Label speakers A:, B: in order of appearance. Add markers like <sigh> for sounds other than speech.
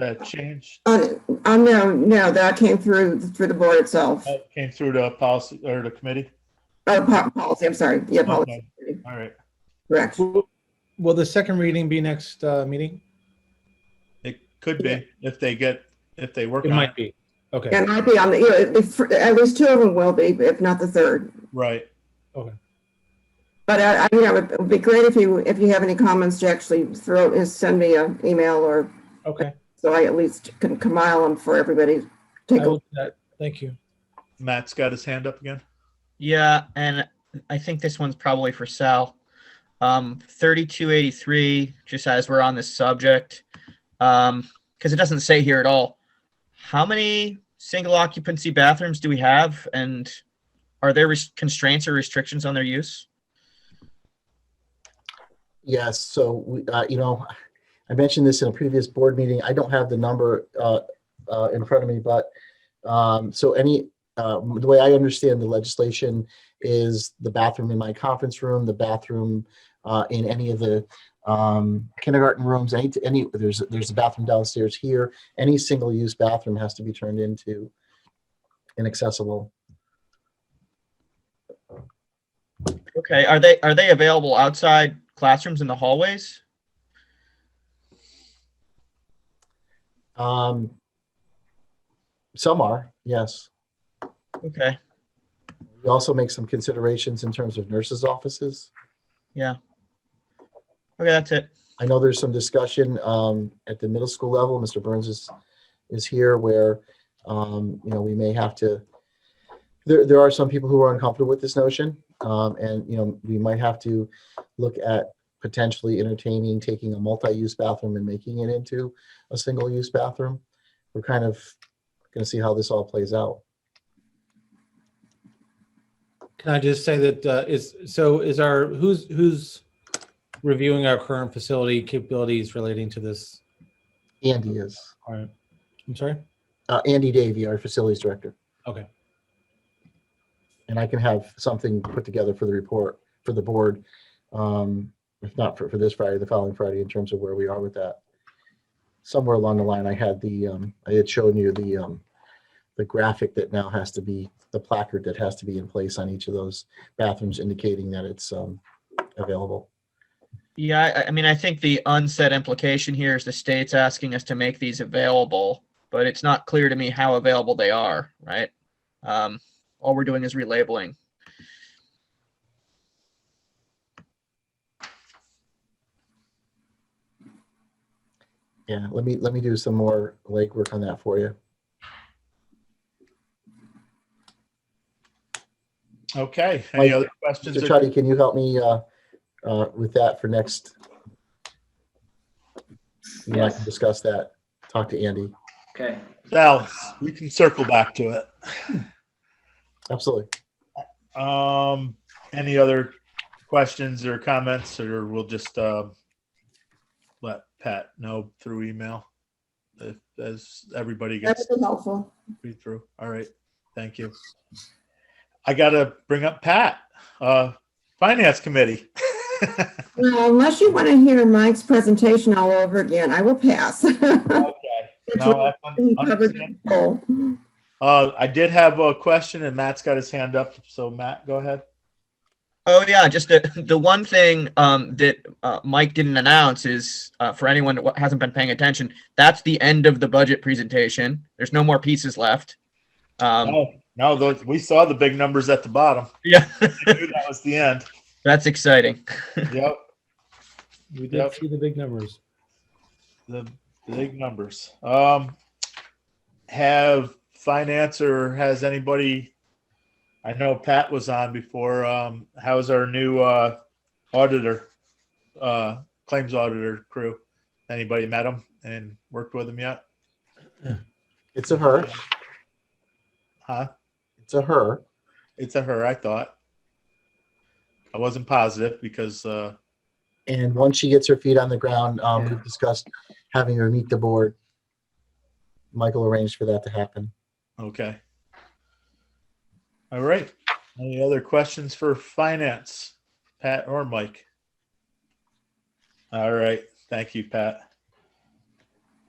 A: uh, change
B: Uh, uh, no, no, that came through, through the board itself,
A: that uh, came through to policy or the committee?
B: or po- policy, I'm sorry, yeah, policy,
A: Okay. All right.
B: correct.
C: Will will the second reading be next uh, meeting?
A: It could be if they get, if they work on
C: It
A: it.
C: might be. Okay,
B: And I'd be on the, you know, if, at least two of them will be, if not the third.
A: Right.
B: But I, I, you know, it would be great if you, if you have any comments to actually throw, is send me an email or,
C: okay.
B: so I at least can compile them for everybody. to Take
C: I
B: a,
C: will do that. Thank you.
A: Matt's got his hand up again.
D: Yeah, and I think this one's probably for Sal. Um, 3283, just as we're on this subject, because it doesn't say here at all. How many single occupancy bathrooms do we have, and are there res- constraints or restrictions on their use?
E: Yes, so we, uh, you know, I mentioned this in a previous board meeting. I don't have the number uh, uh, in front of me, but um, so any, uh, the way I understand the legislation is the bathroom in my conference room, the bathroom uh, in any of the um, kindergarten rooms, any, any, there's, there's a bathroom downstairs here. Any single-use bathroom has to be turned into inaccessible.
D: Okay, are they are they available outside classrooms in the hallways?
E: Um, Some are, yes.
D: Okay,
E: We also make some considerations in terms of nurses' offices.
D: okay, that's it.
E: I know there's some discussion um, at the middle school level. Mr. Burns is, is here where, um, you know, we may have to, there, there are some people who are uncomfortable with this notion. um, And, you know, we might have to look at potentially entertaining, taking a multi-use bathroom and making it into a single-use bathroom. We're kind of going to see how this all plays out.
C: Can I just say that uh, is, so is our, who's, who's reviewing our current facility capabilities relating to this?
E: Andy is,
C: All right. I'm sorry?
E: uh, Andy Davy, our facilities director.
C: Okay.
E: and I can have something put together for the report for the board. Um, if not for, for this Friday, the following Friday, in terms of where we are with that. Somewhere along the line, I had the, um, I had shown you the, um, the graphic that now has to be, the placard that has to be in place on each of those bathrooms indicating that it's, um, available.
D: Yeah, I, I mean, I think the unsaid implication here is the state's asking us to make these available, but it's not clear to me how available they are, right? Um, all we're doing is relabeling.
E: Yeah, let me, let me do some more legwork on that for you.
A: Okay. Any other questions?
E: Mr. Chuddy, can you help me, uh, uh, with that for next? You and I can
F: Yes.
E: discuss that, talk to Andy.
F: Okay,
A: Sal, we can circle back to it.
E: Absolutely.
A: Um, any other questions or comments, or we'll just, uh, let Pat know through email? If, as everybody
B: that
A: gets
B: would be helpful.
A: read through. All right. Thank you. I gotta bring up Pat, uh, Finance Committee.
B: Well, unless you want to hear Mike's presentation all over again, I will pass. <laughs>
A: Okay. No, I
B: He
A: un-
B: covered
A: understand.
B: the whole.
A: Uh, I did have a question and Matt's got his hand up. So Matt, go ahead.
D: Oh yeah, just the, <laughs> the one thing um, that uh, Mike didn't announce is uh, for anyone that wa- hasn't been paying attention, that's the end of the budget presentation. There's no more pieces left. Um,
A: No, Oh, no, those- we saw the big numbers at the bottom.
D: <laughs>
A: <laughs>
D: yeah,
A: I knew that was the end.
D: that's exciting.
A: Yep,
C: We
A: Yep.
C: did see the big numbers.
A: the big numbers. Um, have finance or has anybody? I know Pat was on before. Um, how's our new uh, auditor, uh, claims auditor crew? Anybody met him and worked with him yet?
E: It's a her.
A: Huh?
E: It's a her.
A: It's a her, I thought. I wasn't positive because uh,
E: And once she gets her feet on the ground, um,
A: Yeah.
E: we've discussed having her meet the board. Michael arranged for that to happen.
A: Okay. All right. Any other questions for finance, Pat or Mike? All right. Thank you, Pat.